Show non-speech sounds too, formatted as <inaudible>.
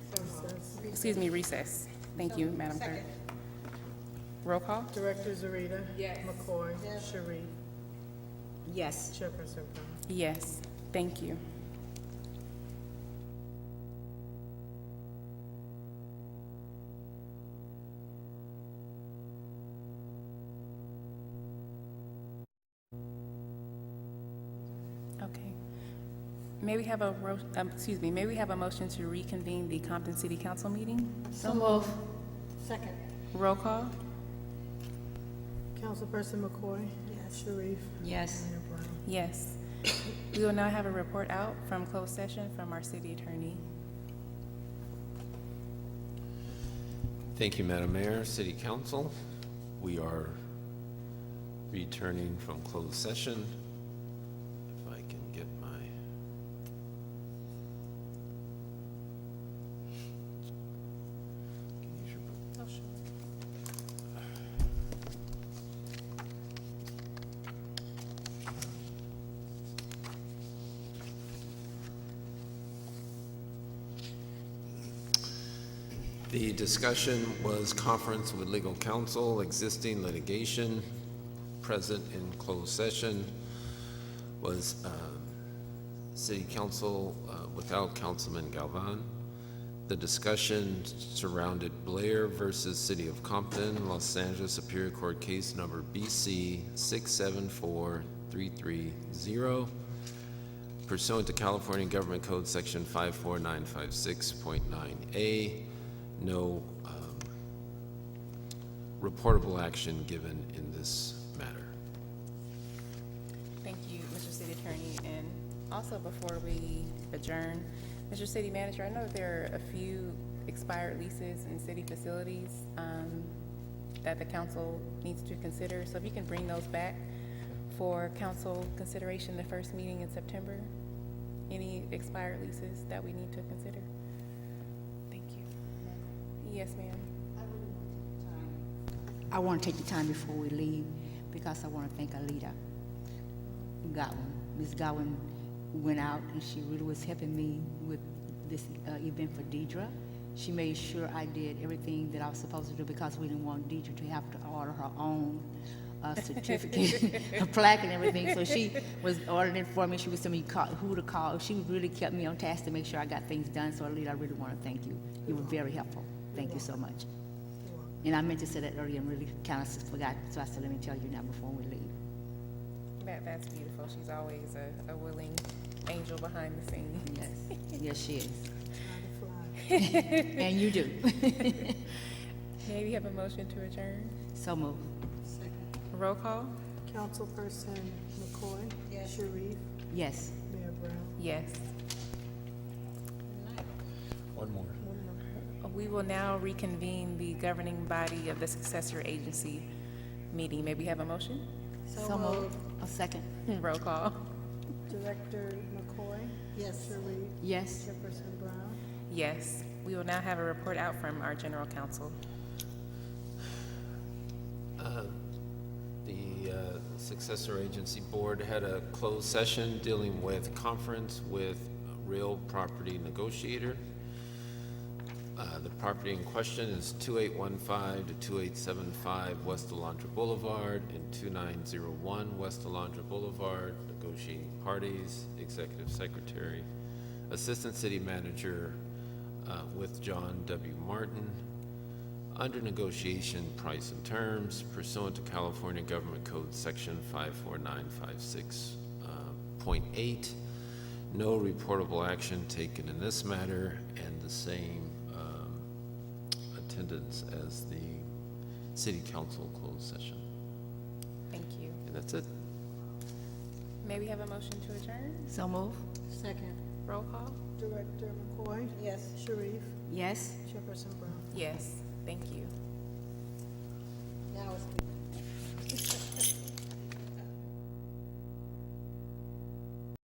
excuse me, recess. Thank you, Madam Clerk. Roll call? Director Zarita. Yes. McCoy. Sharif. Yes. Chairperson Brown. Yes, thank you. Okay. May we have a, ro- um, excuse me, may we have a motion to reconvene the Compton City Council meeting? So move. Second. Roll call? Councilperson McCoy. Yes. Sharif. Yes. Mayor Brown. Yes. We will now have a report out from closed session from our city attorney. Thank you, Madam Mayor, City Council. We are returning from closed session. If I can get my... Can you use your book? The discussion was conference with legal counsel, existing litigation, present in closed session, was um, city council uh, without Councilman Galvan. The discussion surrounded Blair versus City of Compton, Los Angeles Superior Court Case Number BC 674330 pursuant to California Government Code Section 54956.9A, no um, reportable action given in this matter. Thank you, Mr. City Attorney. And also, before we adjourn, Mr. City Manager, I know there are a few expired leases in city facilities um, that the council needs to consider. So if you can bring those back for council consideration, the first meeting in September, any expired leases that we need to consider? Thank you. Yes, ma'am. I want to take the time before we leave because I want to thank Alita Godwin. Ms. Godwin went out and she really was helping me with this uh, event for Deidre. She made sure I did everything that I was supposed to do because we didn't want Deidre to have to order her own uh, certificate, <laughs> a plaque and everything. So she was ordering it for me. She was telling me call, who to call. She really kept me on task to make sure I got things done. So Alita, I really want to thank you. You were very helpful. Thank you so much. And I meant to say that earlier and really kind of forgot, so I said, let me tell you now before we leave. That, that's beautiful. She's always a- a willing angel behind the scenes. Yes, yes, she is. Time to fly. And you do. <laughs> May we have a motion to adjourn? So move. Roll call? Councilperson McCoy. Yes. Sharif. Yes. Mayor Brown. Yes. One more. We will now reconvene the governing body of the successor agency meeting. May we have a motion? So move. A second. <laughs> Roll call? Director McCoy. Yes. Sharif. Yes. Chairperson Brown. Yes. We will now have a report out from our general counsel. The uh, successor agency board had a closed session dealing with conference with a real property negotiator. Uh, The property in question is 2815 to 2875 West Alondra Boulevard and 2901 West Alondra Boulevard. Negotiating parties, executive secretary, assistant city manager uh, with John W. Martin under negotiation, price and terms pursuant to California Government Code Section uh, 54956.8. No reportable action taken in this matter, and the same um, attendance as the city council closed session. Thank you. And that's it. May we have a motion to adjourn? So move. Second. Roll call? Director McCoy. Yes. Sharif. Yes. Chairperson Brown. Yes. Thank you. Now it's.